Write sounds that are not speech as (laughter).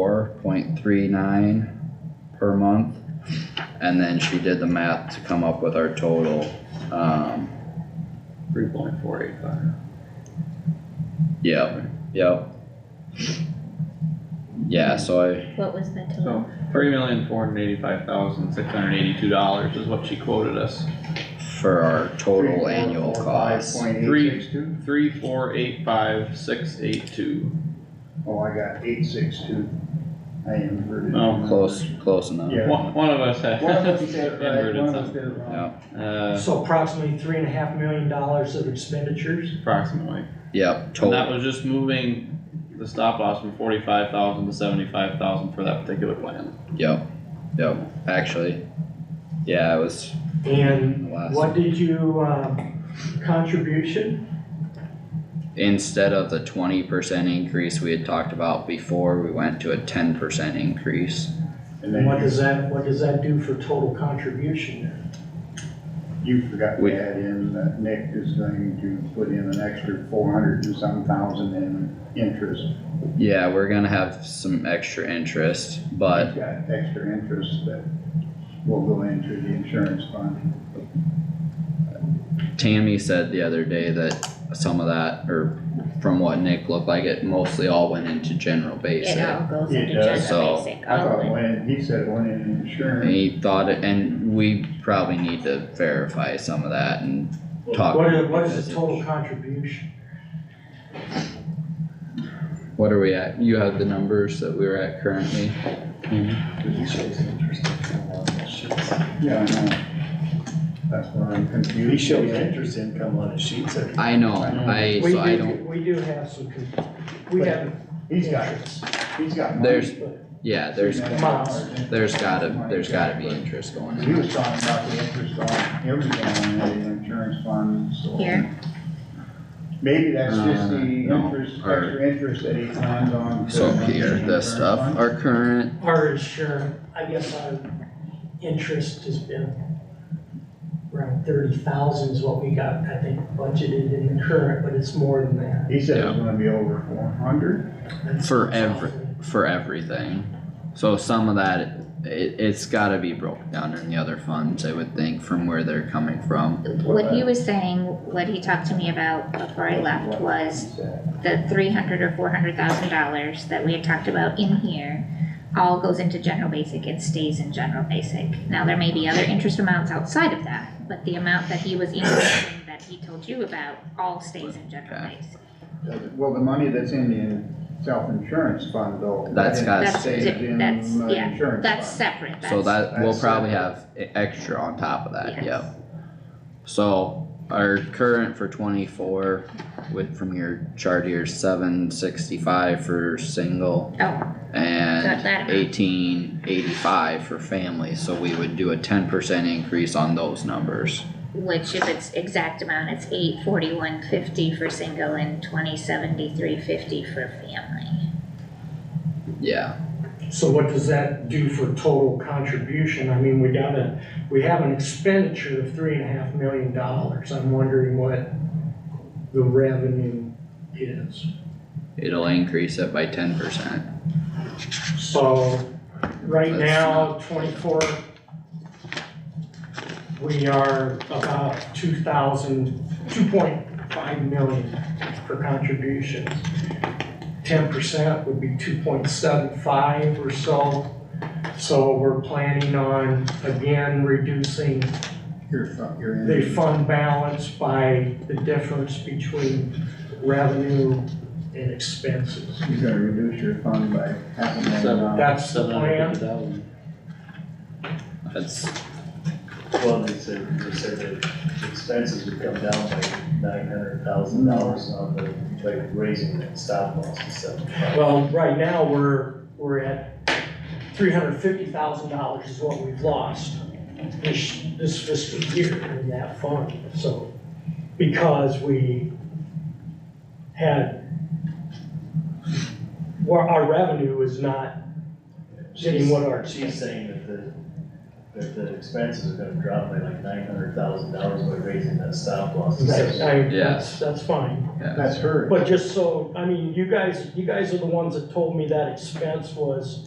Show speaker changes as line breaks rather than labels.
four point three nine per month. And then she did the math to come up with our total, um,
Three point four eight five.
yep, yep. Yeah, so I,
What was the total?
So three million four hundred eighty-five thousand six hundred eighty-two dollars is what she quoted us.
for our
uh,
total annual cost,
Three.
Three, four, four,
Three four eight five six eight two.
five, point eight six two? Oh, I got eight, six, two. I inverted.
Oh,
close, close enough.
Yeah.
One, one of us had.
One
(laughs)
of
(laughs)
us did it right,
inverted
one of us
something.
did it wrong.
Yep,
Uh,
So approximately three and a half million dollars of expenditures.
approximately.
yep,
And that
total,
was just moving the stop loss from forty-five thousand to seventy-five thousand for that particular plan.
yep, yep, actually, yeah, it was
And
the last.
what did you, um, contribution?
Instead of the twenty percent increase we had talked about before, we went to a ten percent increase.
And
And what
then
does that, what does that do for total contribution then?
you forgot
We-
to add in that Nick is going to put in an extra four hundred and some thousand in interest.
Yeah, we're gonna have some extra interest, but
He's Got extra interest that will go into the insurance fund.
Tammy said the other day that some of that, or from what Nick looked like, it mostly all went into general
It
basic.
all goes
It
into
does.
general
So,
basic,
I
all
thought
in.
when, he said when in
And
insurance,
he thought, it- and we probably need to verify some of that and talk.
What is, what is the total contribution?
What are we at? You have the numbers that we were at currently?
yeah, I know. That's where I'm confused.
He showed interest income on his sheet, so
I know, I,
We
so I
do-
don't,
We do have some, con- we have
He's got, he's got money.
there's, yeah, there's,
Miles.
there's gotta, there's gotta be interest going
He
in.
was talking about the interest on everything on the insurance fund, so.
Here.
Maybe that's just
Uh,
the
no,
interest,
or-
extra interest that he plans on.
So
putting on
here,
the
this
insurance
stuff,
fund.
our current
our insurance, I guess our interest has been around thirty thousand is what we got, I think, budgeted in the current, but it's more than that.
He said it's gonna be over four hundred.
That's-
For every- for everything. So some of that, it, it's gotta be broken down in the other funds, I would think, from where they're coming from.
What he was saying, what he talked to me about before I left was the three hundred or four hundred thousand dollars that we had talked about in here. All goes into general basic and stays in general basic. Now, there may be other interest amounts outside of that, but the amount that he was increasing that he told you about all stays in general
Okay.
basic.
Well, the money that's in the self-insurance fund though.
That's
that
gotta
That's
stays
di-
in
that's-
the
yeah,
insurance
That's
fund.
separate, that's.
So that, we'll
That's-
probably have e- extra on top of that,
Yes.
yep. So our current for twenty-four with, from your chart here, seven sixty-five for single
Oh, Got that
and
amount.
eighteen eighty-five for family, so we would do a ten percent increase on those numbers.
which if it's exact amount, it's eight forty-one fifty for single and twenty seventy-three fifty for family.
Yeah.
So what does that do for total contribution? I mean, we got a, we have an expenditure of three and a half million dollars. I'm wondering what the revenue is.
It'll increase it by ten percent.
So, right
That's
now, twenty-four, we are about two thousand, two point five million for contributions. Ten percent would be two point seven five or so. So we're planning on, again, reducing
Your fund, your
the
interest.
fund balance by the difference between revenue and expenses.
You're gonna reduce your fund by half a million
So
dollars.
That's the plan.
$750,000.
That's,
well, they said, they said that expenses would come down by nine hundred thousand dollars on the, like raising that stop loss to seventy-five.
Well, right now, we're, we're at three hundred fifty thousand dollars is what we've lost this, this fiscal year in that fund, so, because we had, well, our revenue is not getting what our,
She's saying that the, that the expenses are gonna drop by like nine hundred thousand dollars by raising that stop loss. to
Right, I,
Yes.
that's, that's fine,
yeah.
That's her.
but just so, I mean, you guys, you guys are the ones that told me that expense was